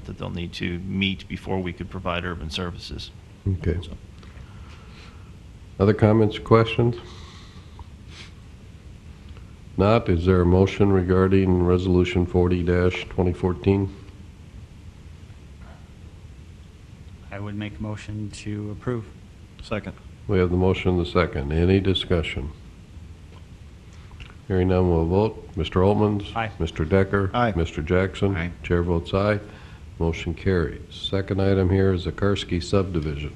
that they'll need to meet before we could provide urban services. Okay. Other comments, questions? Not, is there a motion regarding Resolution 40-2014? I would make a motion to approve. Second. We have the motion and the second. Any discussion? Hearing none, we'll vote. Mr. Altman's? Aye. Mr. Decker? Aye. Mr. Jackson? Aye. Chair votes aye. Motion carries. Second item here is the Karski subdivision.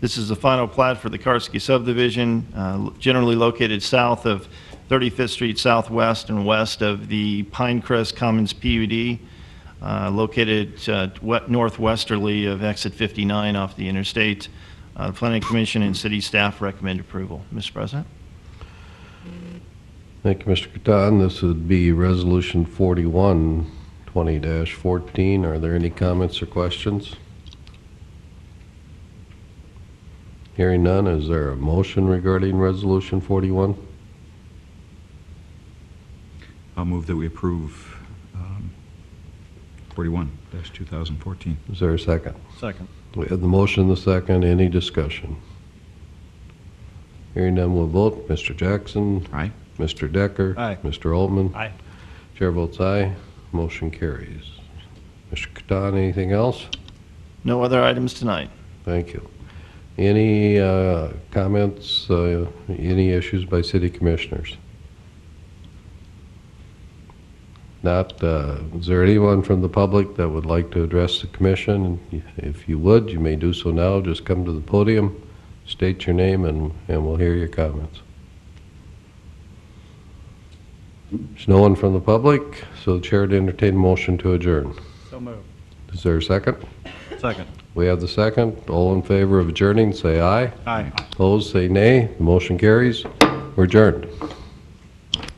This is the final plat for the Karski subdivision, uh, generally located south of 35th Street Southwest and west of the Pinecrest Commons PUD, uh, located uh, we- northwesterly of exit 59 off the interstate. Uh, Planning Commission and city staff recommend approval. Mr. President? Thank you, Mr. Catan. This would be Resolution 41, 20-14. Are there any comments or questions? Hearing none, is there a motion regarding Resolution 41? I'll move that we approve um, 41-2014. Is there a second? Second. We have the motion, the second, any discussion? Hearing none, we'll vote. Mr. Jackson? Aye. Mr. Decker? Aye. Mr. Altman? Aye. Chair votes aye, motion carries. Mr. Catan, anything else? No other items tonight. Thank you. Any uh, comments, uh, any issues by city commissioners? Not, uh, is there anyone from the public that would like to address the commission? If you would, you may do so now, just come to the podium, state your name, and and we'll hear your comments. There's no one from the public, so the chair to entertain a motion to adjourn. So moved. Is there a second? Second. We have the second. All in favor of adjourning, say aye. Aye. Opposed, say nay. The motion carries. We're adjourned.